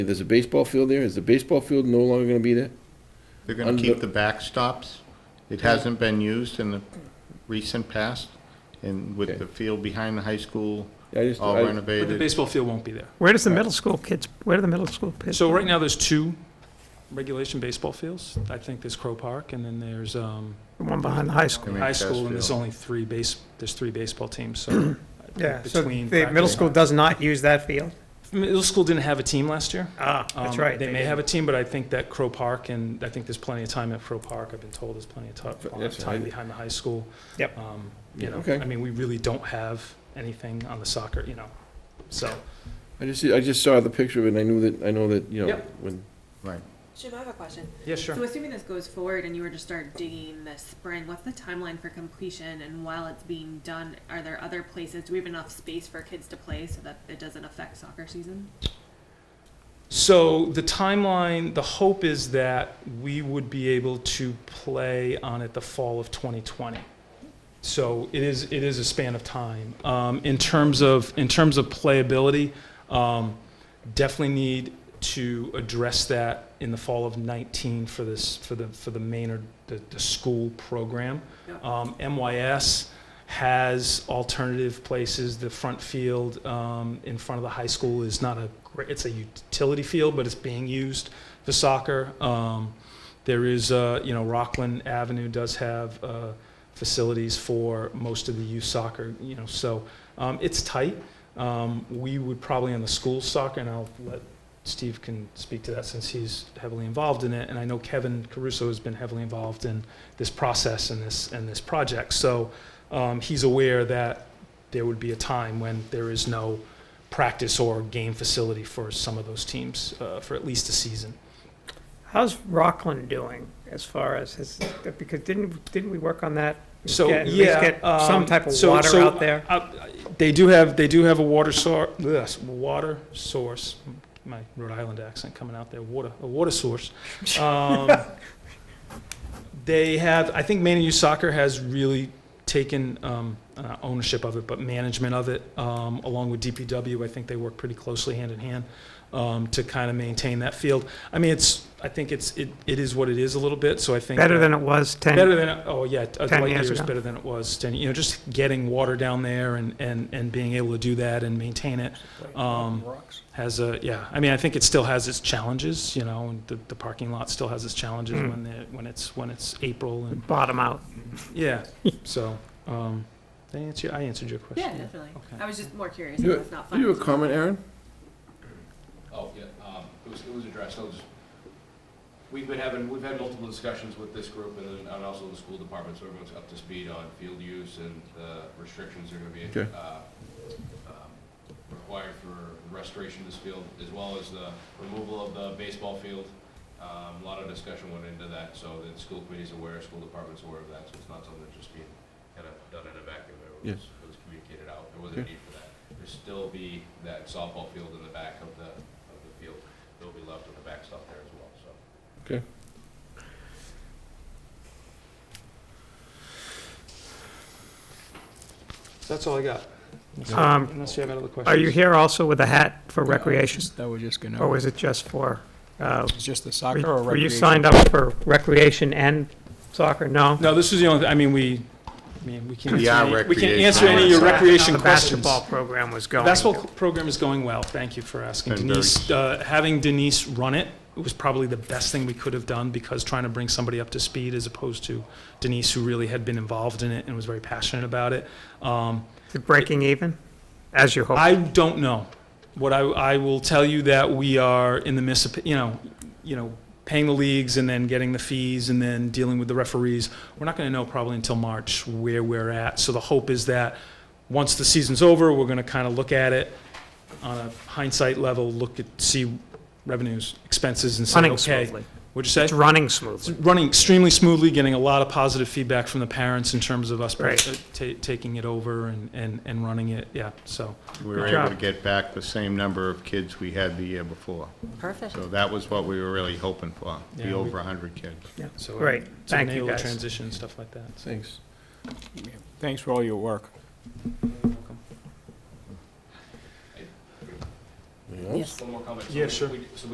There's a baseball field there. Is the baseball field no longer going to be there? They're going Under- to keep the backstops. It hasn't been used in the recent past, and with the field behind the high school I just- all I- renovated. But the baseball field won't be there. Where does the middle school kids, where do the middle school kids? So right now, there's two regulation baseball fields. I think there's Crow Park, and then there's um, The one behind the high school. I mean, high school, Chesterfield. and there's only three base, there's three baseball teams, so. uh, Yeah, so between the middle practice- school does not use that field? Middle school didn't have a team last year. Ah, that's Um, right. They may didn't. have a team, but I think that Crow Park, and I think there's plenty of time at Crow Park. I've been told there's plenty of ti- F- uh, that's time right. behind the high school. Yep. Um, You know, Okay. I mean, we really don't have anything on the soccer, you know, so. I just, I just saw the picture of it, and I knew that, I know that, you know, Yeah. when, Right. Jim, I have a question. Yeah, sure. So assuming this goes forward and you were to start digging this spring, what's the timeline for completion? And while it's being done, are there other places, do we have enough space for kids to play so that it doesn't affect soccer season? So the timeline, the hope is that we would be able to play on it the fall of 2020. So it is, it is a span of time. Um, in terms of, in terms of playability, um, definitely need to address that in the fall of 19 for this, for the, for the Maynard, the, the school program. Yep. Um, MYS has alternative places. The front field um, in front of the high school is not a great, it's a utility field, but it's being used for soccer. Um, there is, uh, you know, Rockland Avenue does have uh, facilities for most of the youth soccer, you know, so um, it's tight. Um, we would probably on the school soccer, and I'll let Steve can speak to that since he's heavily involved in it, and I know Kevin Caruso has been heavily involved in this process and this and this project. So um, he's aware that there would be a time when there is no practice or game facility for some of those teams uh, for at least a season. How's Rockland doing as far as, his- because didn't, didn't we work on that? So Get- at least yeah, get Some um, type of so- water so out there? Uh, They do have, they do have a water source, yes, water source, my Rhode Island accent coming out there, water, a water source. Um, They have, I think Maine Youth Soccer has really taken um, uh, ownership of it, but management of it, um, along with DPW, I think they work pretty closely hand in hand um, to kind of maintain that field. I mean, it's, I think it's, it it is what it is a little bit, so I think. Better that- than it was 10? Better than, oh, yeah, a 10 light years years ago. better than it was 10, you know, just getting water down there and, and, and being able to do that and maintain it um, has a, yeah, I mean, I think it still has its challenges, you know, and the, the parking lot still has its challenges Mm. when the, when it's, when it's April and, Bottom out. yeah, so, um, did I answer, I answered your question. Yeah, definitely. Okay. I was just more curious You- if it's not do fun. you have a comment, Aaron? Oh, yeah, um, it was, it was addressed, I was, we've been having, we've had multiple discussions with this group and, then- and also the school department, so everyone's up to speed on field use and the restrictions are gonna be, Okay. uh, um, required for restoration of this field, as well as the removal of the baseball field. Um, a lot of discussion went into that, so the school committee's aware, school department's aware of that, so it's not something that's just being kind of done in a vacuum. It was, it was communicated out, there wasn't a Okay. need for that. There'll still be that softball field in the back of the, of the field. They'll be left with the backstop there as well, so. That's all I got. Um, Unless you have another question. Are you here also with a hat for No, I was recreation? just- That was just gonna, Or it was it just for, uh, was just the Oh, were soccer or recreation? were you signed up for recreation and soccer? No? No, this is the only, I mean, we, I mean, we can't We answer are any, we can't recreation. answer any of your How recreation The questions. basketball program was going. Basketball program is going well, thank you for asking. Been Denise, uh, having Denise run it was probably the best thing we could have done because trying to bring somebody up to speed as opposed to Denise, who really had been involved in it and was very passionate about it. Um, Is it Breaking even, as you hope? I don't know. What I, I will tell you that we are in the midst of, you know, you know, paying the leagues and then getting the fees and then dealing with the referees. We're not going to know probably until March where we're at. So the hope is that once the season's over, we're going to kind of look at it on a hindsight level, look at, see revenues, expenses and say, Running okay. smoothly. What'd you say? It's running It's smoothly. running extremely smoothly, getting a lot of positive feedback from the parents in terms of us Right. uh, ta- taking it over and, and, and running it. Yeah, so. We were Good able job. to get back the same number of kids we had the year before. Perfect. So that was what we were really hoping for, Yeah, be we- over 100 kids. So, uh, Great. to Thank you, enable guys. Transition, and stuff like that. Thanks. Thanks for all your work. Anyone else? One more comment. So Yeah, we- sure. we- So